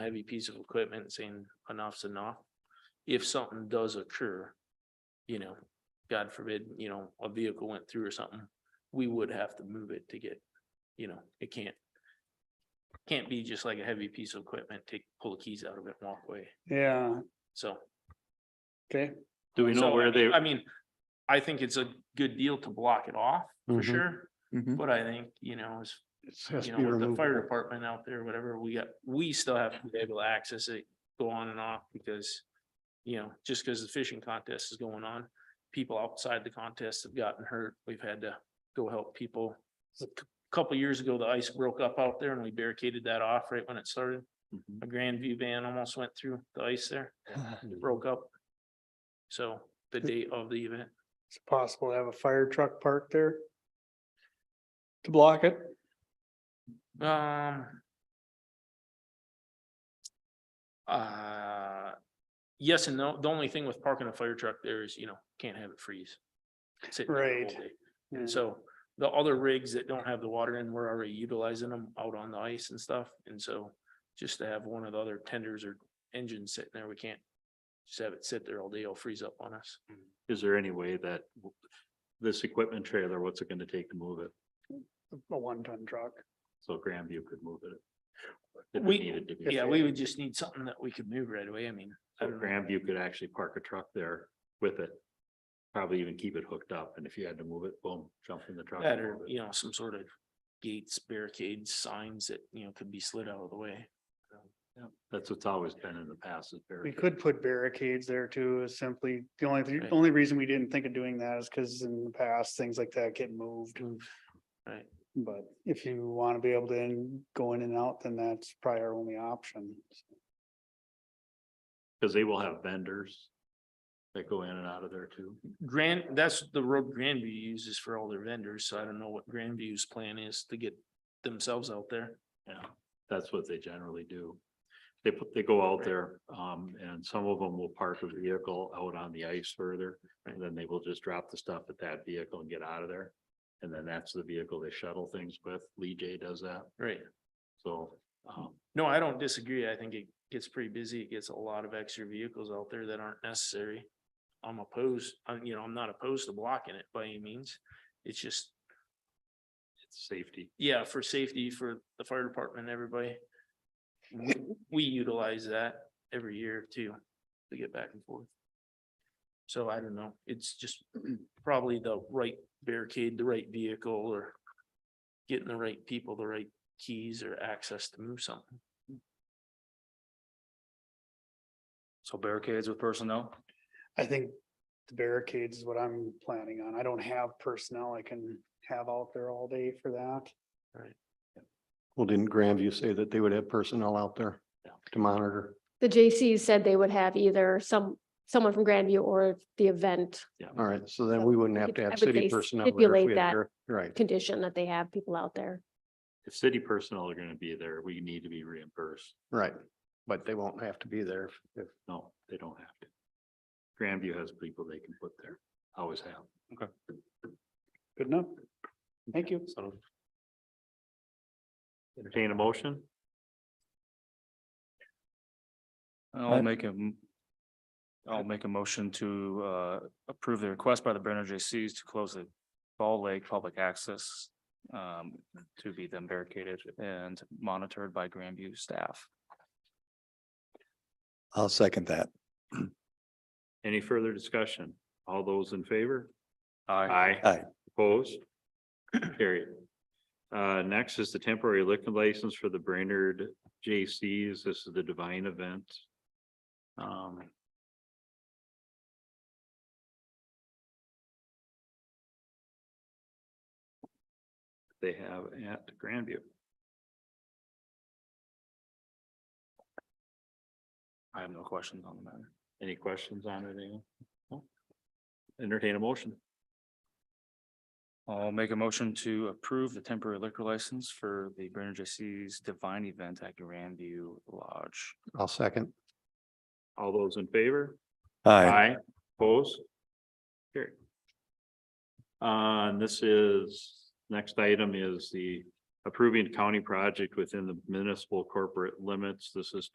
heavy piece of equipment saying enough's enough. If something does occur, you know, God forbid, you know, a vehicle went through or something, we would have to move it to get, you know, it can't. Can't be just like a heavy piece of equipment, take, pull the keys out of it and walk away, Yeah, so. okay, Do we know so, I where mean- they, I mean, I think it's a good deal to block it off, for Mhm. sure, Mhm. but I think, you know, as it has you know, to be with the removed. fire department out there, whatever, we got, we still have to be able to access it, go on and off because. You know, just because the fishing contest is going on, people outside the contest have gotten hurt. We've had to go help people. A c- Couple years ago, the ice broke up out there and we barricaded that off right when it started. Mhm. A Grand View van almost went through the ice there, It broke up. So the date of the event, It's possible to have a fire truck parked there. To block it, Um. Uh, yes and no. The only thing with parking a fire truck there is, you know, can't have it freeze. sitting there all Right. day. Yeah. And so the other rigs that don't have the water in, we're already utilizing them out on the ice and stuff. And so just to have one of the other tenders or engines sitting there, we can't just have it sit there all day. It'll freeze up on us. is there any way that w- this equipment trailer, what's it gonna take to move it? a one ton truck. So Grandview could move it. if it We- needed to be. Yeah, we would just need something that we could move right away. I mean, I So don't know. Grandview could actually park a truck there with it. Probably even keep it hooked up, and if you had to move it, boom, jump in the truck. and That or, move it. you know, some sort of gates, barricades, signs that, you know, could be slid out of the way. Yeah, That's what's always been in the past. is We barricade. could put barricades there too, is simply, the only, the Right. only reason we didn't think of doing that is because in the past, things like that get moved. Right. But if you want to be able to in- go in and out, then that's probably our only option. Cause they will have vendors that go in and out of there too. Grand, that's the road Grandview uses for all their vendors, so I don't know what Grandview's plan is to get themselves out there. Yeah, that's what they generally do. They put, they go out Right. there, um, and some of them will park a vehicle out on the ice further. And then they will just drop the stuff at that vehicle and get out of there. And then that's the vehicle they shuttle things with. Lee J does that, Right. so, um, No, I don't disagree. I think it gets pretty busy. It gets a lot of extra vehicles out there that aren't necessary. I'm opposed, I'm, you know, I'm not opposed to blocking it by any means. It's just it's safety. yeah, for safety for the fire department, everybody. w- We utilize that every year too, to get back and forth. So I don't know, it's just probably the right barricade, the right vehicle or getting the right people, the right keys or access to move something. So barricades with personnel? I think the barricades is what I'm planning on. I don't have personnel I can have out there all day for that. Well, didn't Grandview say that they would have personnel out there Yeah. to monitor? The JCs said they would have either some, someone from Grandview or the event Mm-hmm. All right, so then So we wouldn't we have could- to I have would city say personnel. there if we stipulate had that. gar- Right, condition that they have people out there. If city personnel are gonna be there, we need to be reimbursed. right. But they won't have to be there if- if No, they don't have to. Grandview has people they can put there, always have. Good enough. Thank you. So. Entertain a motion? I'll make a m- I'll make a motion to uh approve the request by the Brainerd JCs to close the Ball Lake public access. Um, to be then barricaded and monitored by Grandview staff. I'll second that. Any further discussion? All those in favor? Aye. Opposed? Carried. Uh, next is the temporary liquor license for the Brainerd J.C.'s. This is the Divine Event. Um. They have at Grandview. I have no questions on the matter. Any questions on it? Ian? No? Entertain a motion. I'll make a motion to approve the temporary liquor license for the Brainerd JCs Divine Event at Grandview Lodge. I'll second. All those in favor? Aye. Aye, opposed? Carried. Uh, and this is, next item is the approving county project within the municipal corporate limits. This is